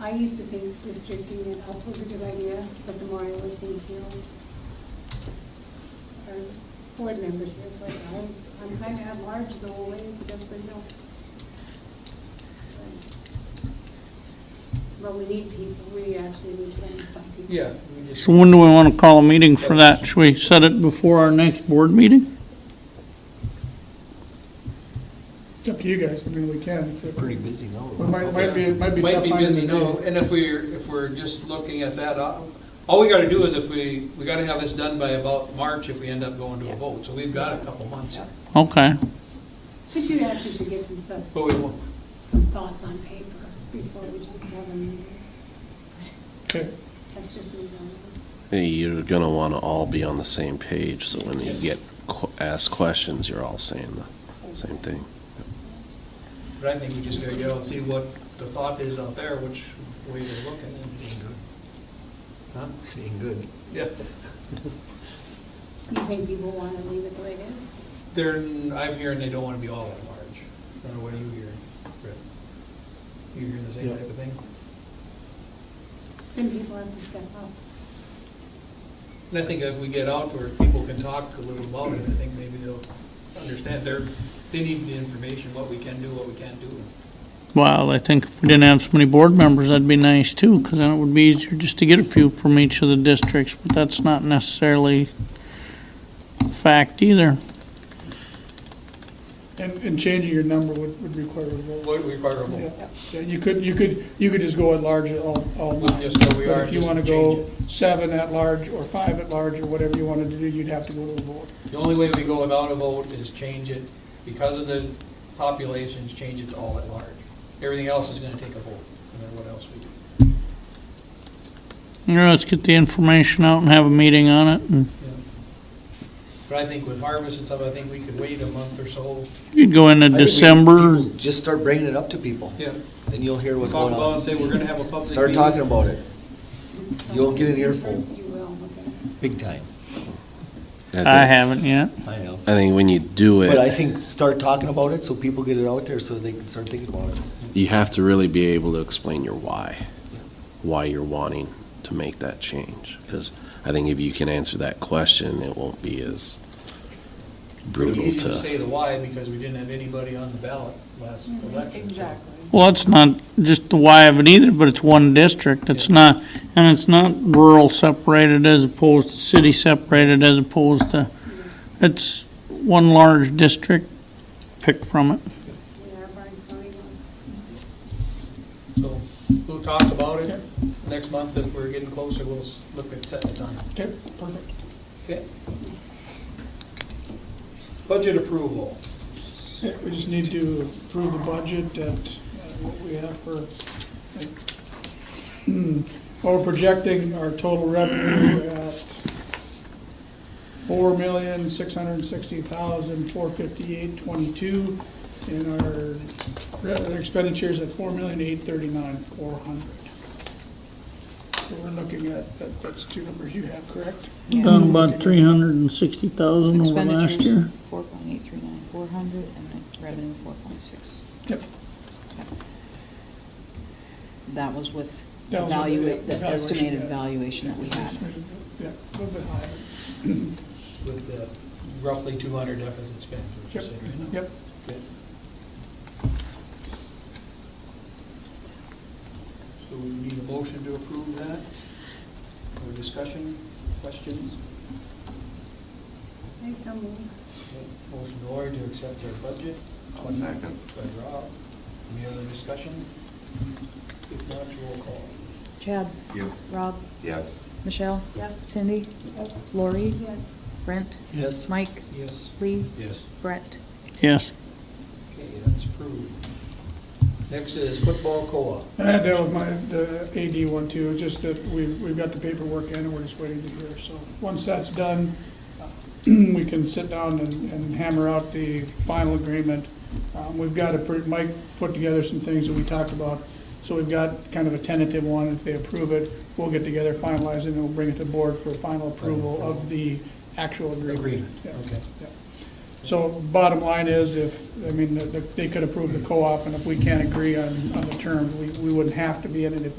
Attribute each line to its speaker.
Speaker 1: I used to think districting it up was a good idea, but the more I listen to our board members here, it's like, I'm, I'm kind of at large the whole way, just for no. But we need people, we actually need satisfied people.
Speaker 2: Yeah, we just,
Speaker 3: So when do we want to call a meeting for that? Should we set it before our next board meeting?
Speaker 4: It's up to you guys, I mean, we can, if it
Speaker 5: Pretty busy now.
Speaker 4: we might, might be, it might be
Speaker 2: might
Speaker 4: tough
Speaker 2: be
Speaker 4: on
Speaker 2: busy
Speaker 4: the
Speaker 2: now,
Speaker 4: day.
Speaker 2: and if we're, if we're just looking at that, uh, all we gotta do is if we, we gotta have this done by about March if we end up going to a vote, so we've got a couple months here.
Speaker 3: Okay.
Speaker 1: But you actually should get some, some-
Speaker 2: But we won't,
Speaker 1: some thoughts on paper before we just have a meeting.
Speaker 4: Okay,
Speaker 1: That's just me. though.
Speaker 5: You're gonna wanna all be on the same page, so when you get qu- asked questions, you're all saying the same thing.
Speaker 2: but I think we just gotta go and see what the thought is out there, which way we're looking. Huh?
Speaker 5: Being good.
Speaker 2: Yeah,
Speaker 1: You think people want to leave it the way it is?
Speaker 2: they're, I'm hearing they don't wanna be all at large. I don't know, what are you hearing, Rick? You hearing the same
Speaker 4: Yeah.
Speaker 2: type of thing?
Speaker 1: Then people have to step up.
Speaker 2: And I think if we get out where people can talk a little about it, I think maybe they'll understand, they're, they need the information, what we can do, what we can't do.
Speaker 3: Well, I think if we didn't have so many board members, that'd be nice too, because then it would be easier just to get a few from each of the districts, but that's not necessarily a fact either.
Speaker 4: and, and changing your number would, would require a vote.
Speaker 2: What we require,
Speaker 4: Yeah.
Speaker 2: we'll
Speaker 4: Yeah, You could, you could, you could just go at large at all, all
Speaker 2: we'll
Speaker 4: nine.
Speaker 2: just go we
Speaker 4: But
Speaker 2: are,
Speaker 4: if you
Speaker 2: just
Speaker 4: wanna
Speaker 2: change
Speaker 4: go
Speaker 2: it.
Speaker 4: seven at large, or five at large, or whatever you wanted to do, you'd have to go to a vote.
Speaker 2: The only way we go without a vote is change it, because of the populations, change it to all at large. Everything else is gonna take a vote, no matter what else we do.
Speaker 3: You know, let's get the information out and have a meeting on it, and
Speaker 2: Yeah. But I think with harvest and stuff, I think we could wait a month or so.
Speaker 3: you'd go into
Speaker 6: I think we-
Speaker 3: December.
Speaker 6: people Just start bringing it up to people,
Speaker 2: Yeah.
Speaker 6: and you'll hear what's
Speaker 2: Talk
Speaker 6: going
Speaker 2: about and
Speaker 6: on.
Speaker 2: say, we're gonna have a public meeting.
Speaker 6: Start talking about it, You'll get an
Speaker 1: Um,
Speaker 6: earful.
Speaker 1: You will, okay.
Speaker 6: big time.
Speaker 3: I haven't yet.
Speaker 6: I know.
Speaker 5: I think when you do
Speaker 6: But I
Speaker 5: it,
Speaker 6: think start talking about it, so people get it out there, so they can start thinking about it.
Speaker 5: you have to really be able to explain your why, why you're wanting to make that change. Because I think if you can answer that question, it won't be as
Speaker 2: Pretty
Speaker 5: brutal
Speaker 2: easy to
Speaker 5: to.
Speaker 2: say the why, because we didn't have anybody on the ballot last election. Exactly.
Speaker 3: Well, it's not just the why of it either, but it's one district. It's not, and it's not rural separated as opposed to city separated as opposed to, it's one large district. Pick from it.
Speaker 1: Yeah, our barn's going on.
Speaker 2: So we'll talk about it next month, if we're getting closer, we'll s- look at setting a time.
Speaker 4: Okay, perfect.
Speaker 2: Okay? Budget approval.
Speaker 4: Yeah, We just need to approve the budget at uh, what we have for, like, well, we're projecting our total revenue at four million, six hundred and sixty thousand, four fifty-eight, twenty-two, and our re- expenditures at four million, eight thirty-nine, four hundred. So we're looking at, that- that's two numbers you have, correct?
Speaker 3: Done about three hundred and sixty thousand over last year.
Speaker 7: Mm-hmm. Four point eight three nine, four hundred, and then revenue four point six.
Speaker 4: Yep.
Speaker 7: That was with
Speaker 4: That
Speaker 7: the
Speaker 4: was with the-
Speaker 7: value,
Speaker 4: the
Speaker 7: the estimated
Speaker 4: valuation,
Speaker 7: valuation that we had.
Speaker 4: Yeah, a little bit higher.
Speaker 2: with the roughly 200 deficit spend, which you
Speaker 4: Yep,
Speaker 2: said right now.
Speaker 4: yep.
Speaker 2: Okay. So we need a motion to approve that, or discussion, questions?
Speaker 1: I so moved.
Speaker 2: Okay. Motion to Lori to accept our budget. Second. By Rob. Any other discussion? If not, roll call.
Speaker 7: Chad? Rob?
Speaker 8: Yes.
Speaker 7: Michelle?
Speaker 1: Yes.
Speaker 7: Cindy?
Speaker 1: Yes.
Speaker 7: Lori?
Speaker 1: Yes.
Speaker 7: Brent?
Speaker 6: Yes,
Speaker 7: Mike?
Speaker 2: Yes.
Speaker 7: Lee?
Speaker 5: Yes.
Speaker 7: Brett?
Speaker 3: Yes.
Speaker 2: Okay, that's approved. Next is football co-op.
Speaker 4: I had that with my, the AD one too, it's just that we've, we've got the paperwork in and we're just waiting to hear. So, once that's done, we can sit down and, and hammer out the final agreement. Um, we've got a, pre- Mike put together some things that we talked about, so we've got kind of a tentative one. If they approve it, we'll get together, finalize it, and we'll bring it to board for final approval of the actual agreement.
Speaker 2: Agreement,
Speaker 4: Yeah.
Speaker 2: okay.
Speaker 4: So bottom line is, if, I mean, the- the- they could approve the co-op, and if we can't agree on, on the terms, we, we wouldn't have to be in it if we